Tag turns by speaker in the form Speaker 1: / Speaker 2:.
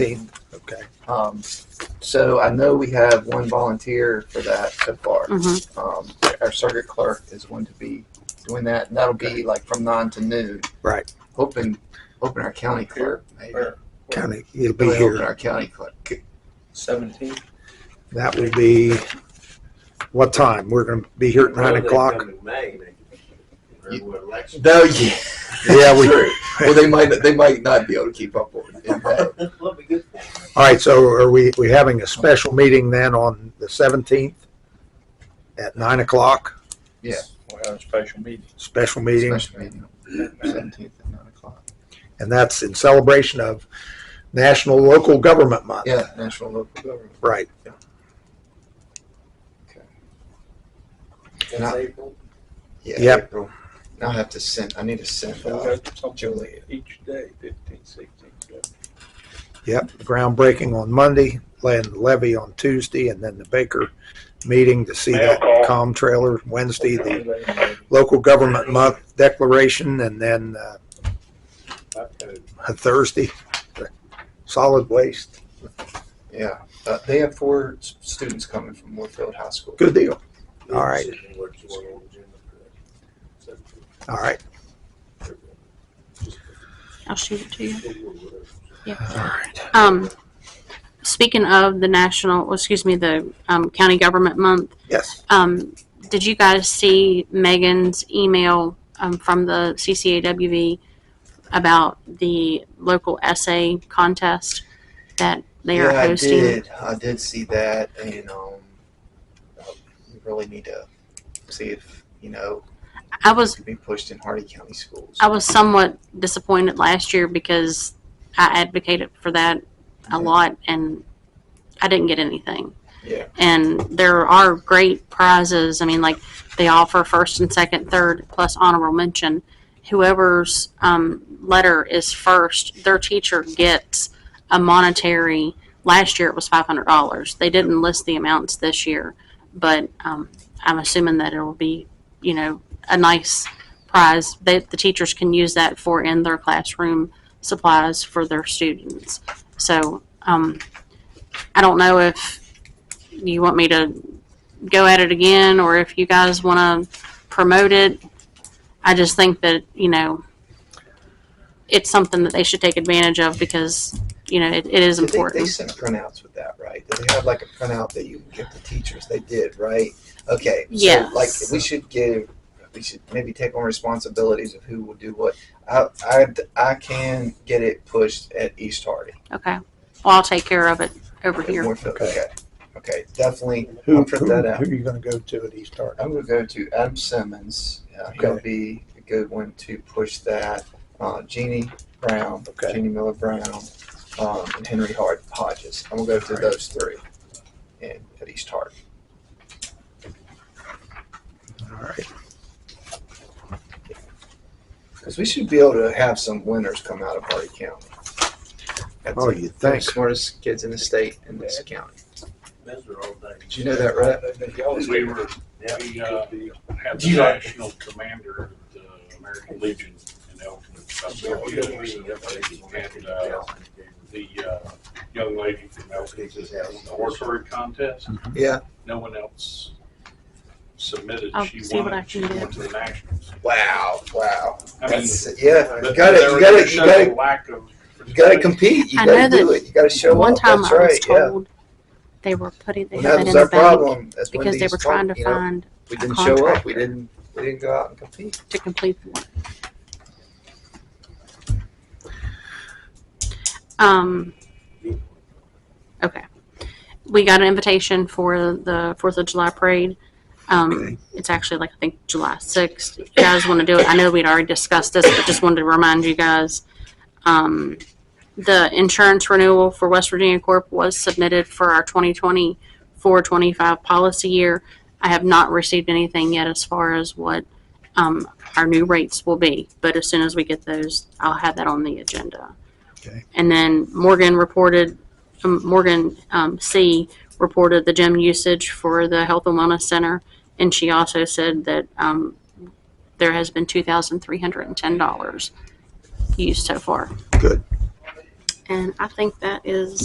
Speaker 1: Okay.
Speaker 2: Um, so I know we have one volunteer for that so far.
Speaker 3: Mhm.
Speaker 2: Um, our circuit clerk is going to be doing that, and that'll be like from nine to noon.
Speaker 1: Right.
Speaker 2: Hoping, hoping our county clerk, maybe.
Speaker 4: Or
Speaker 1: County, it'll be
Speaker 2: Really hoping
Speaker 1: here.
Speaker 2: our county clerk.
Speaker 4: seventeen.
Speaker 1: That will be, what time? We're gonna be here at nine o'clock?
Speaker 2: No, yeah.
Speaker 1: Oh, Yeah, we, all
Speaker 2: True. Well, they might, they might not be able to keep up with it. in May.
Speaker 1: right, so are we, we having a special meeting then on the seventeenth? At nine o'clock,
Speaker 2: Yeah.
Speaker 4: We'll have a special meeting.
Speaker 1: special meeting,
Speaker 2: Special meeting, seventeenth at nine o'clock.
Speaker 1: and that's in celebration of National Local Government Month.
Speaker 2: Yeah, national local government.
Speaker 1: Right,
Speaker 2: Now-
Speaker 4: April.
Speaker 2: Yeah.
Speaker 1: Yep.
Speaker 2: April. Now I have to send, I need to send,
Speaker 4: So we
Speaker 2: uh,
Speaker 4: got something
Speaker 2: Julie.
Speaker 4: each day, fifteen, sixteen, seventeen.
Speaker 1: yep, groundbreaking on Monday, land levy on Tuesday, and then the Baker meeting to see that com trailer Wednesday, the local government month declaration and then uh, a Thursday, solid waste.
Speaker 2: Yeah, uh, they have four s- students coming from Warfield High School.
Speaker 1: Good deal. All right. All right.
Speaker 3: I'll shoot it to you.
Speaker 1: All right.
Speaker 3: Um, speaking of the national, well, excuse me, the um, county government month,
Speaker 1: Yes.
Speaker 3: um, did you guys see Megan's email um, from the CCAWV about the local essay contest that they are
Speaker 2: yeah,
Speaker 3: hosting?
Speaker 2: I did. I did see that, and um, we really need to see if you know
Speaker 3: I was
Speaker 2: it could be pushed in Hardy County schools.
Speaker 3: I was somewhat disappointed last year because I advocated for that
Speaker 2: Yeah.
Speaker 3: a lot and I didn't get anything.
Speaker 2: Yeah.
Speaker 3: And there are great prizes. I mean, like they offer first and second, third, plus honorable mention. Whoever's um, letter is first, their teacher gets a monetary. Last year it was five hundred dollars. They didn't list the amounts this year, but um, I'm assuming that it'll be, you know, a nice prize that the teachers can use that for in their classroom supplies for their students. So um, I don't know if you want me to go at it again or if you guys want to promote it. I just think that, you know, it's something that they should take advantage of because, you know, it, it is
Speaker 2: Did they, they
Speaker 3: important.
Speaker 2: sent printouts with that, right? Did they have like a printout that you can give to teachers? They did, right? Okay.
Speaker 3: Yes.
Speaker 2: So, like we should give, we should maybe take on responsibilities of who will do what. I I, I can get it pushed at East Hardy.
Speaker 3: Okay. Well, I'll take care of it over
Speaker 2: Okay,
Speaker 3: here.
Speaker 2: Warfield,
Speaker 1: Okay.
Speaker 2: okay. Okay, definitely.
Speaker 1: Who,
Speaker 2: I'll print
Speaker 1: who,
Speaker 2: that out.
Speaker 1: who are you going to go to at East Hardin?
Speaker 2: I'm going to go to Adam Simmons. Uh, He'll
Speaker 1: Okay.
Speaker 2: be a good one to push that. Uh, Jeannie Brown,
Speaker 1: Okay.
Speaker 2: Jeannie Miller Brown, um, and Henry Hart Hodges. I'm going to go through
Speaker 1: Alright.
Speaker 2: those three and at East Hart.
Speaker 1: All right.
Speaker 2: Because we should be able to have some winners come out of Hardy County. That's
Speaker 1: Oh,
Speaker 2: it.
Speaker 1: you
Speaker 2: They're the
Speaker 1: think?
Speaker 2: Smartest kids in the state in this county. Did you know that, right?
Speaker 5: Because We were, we, uh, had the
Speaker 4: You know-
Speaker 5: national commander of the American Legion in Elton. about several years ago. And, uh, the, uh, young lady from Elton, the oratory contest,
Speaker 2: Mm-hmm. Yeah.
Speaker 5: no one else submitted.
Speaker 3: I'll
Speaker 5: She
Speaker 3: see what I
Speaker 5: won,
Speaker 3: can
Speaker 5: she
Speaker 3: do.
Speaker 5: went to the nationals.
Speaker 2: Wow. Wow.
Speaker 5: I mean,
Speaker 2: That's, yeah.
Speaker 5: but
Speaker 2: You got
Speaker 5: there
Speaker 2: to, you
Speaker 5: was
Speaker 2: got
Speaker 5: a
Speaker 2: to, you got to,
Speaker 5: total Lack of.
Speaker 2: you got to compete. You
Speaker 3: I
Speaker 2: got to
Speaker 3: know
Speaker 2: do it. You got to show
Speaker 3: One
Speaker 2: up.
Speaker 3: time
Speaker 2: That's
Speaker 3: I was
Speaker 2: right. yeah.
Speaker 3: told they were putting they
Speaker 2: Well,
Speaker 3: had
Speaker 2: that
Speaker 3: that in
Speaker 2: was
Speaker 3: the
Speaker 2: our
Speaker 3: bank
Speaker 2: problem. That's when
Speaker 3: because they
Speaker 2: these
Speaker 3: were trying
Speaker 2: folk,
Speaker 3: to
Speaker 2: you know,
Speaker 3: find
Speaker 2: We
Speaker 3: a
Speaker 2: didn't show up. We
Speaker 3: contractor.
Speaker 2: didn't. We didn't go out and compete.
Speaker 3: to complete the work. Um, okay. We got an invitation for the Fourth of July parade. Um, it's actually like, I think, July sixth. If you guys want to do it, I know we'd already discussed this, but just wanted to remind you guys. Um, the insurance renewal for West Virginia Corp was submitted for our 2024 25 policy year. I have not received anything yet as far as what um, our new rates will be. But as soon as we get those, I'll have that on the agenda.
Speaker 1: Okay.
Speaker 3: And then Morgan reported, um, Morgan um, C. reported the gym usage for the Health and Wellness Center. And she also said that um, there has been $2,310 used so far.
Speaker 1: Good.
Speaker 3: And I think that is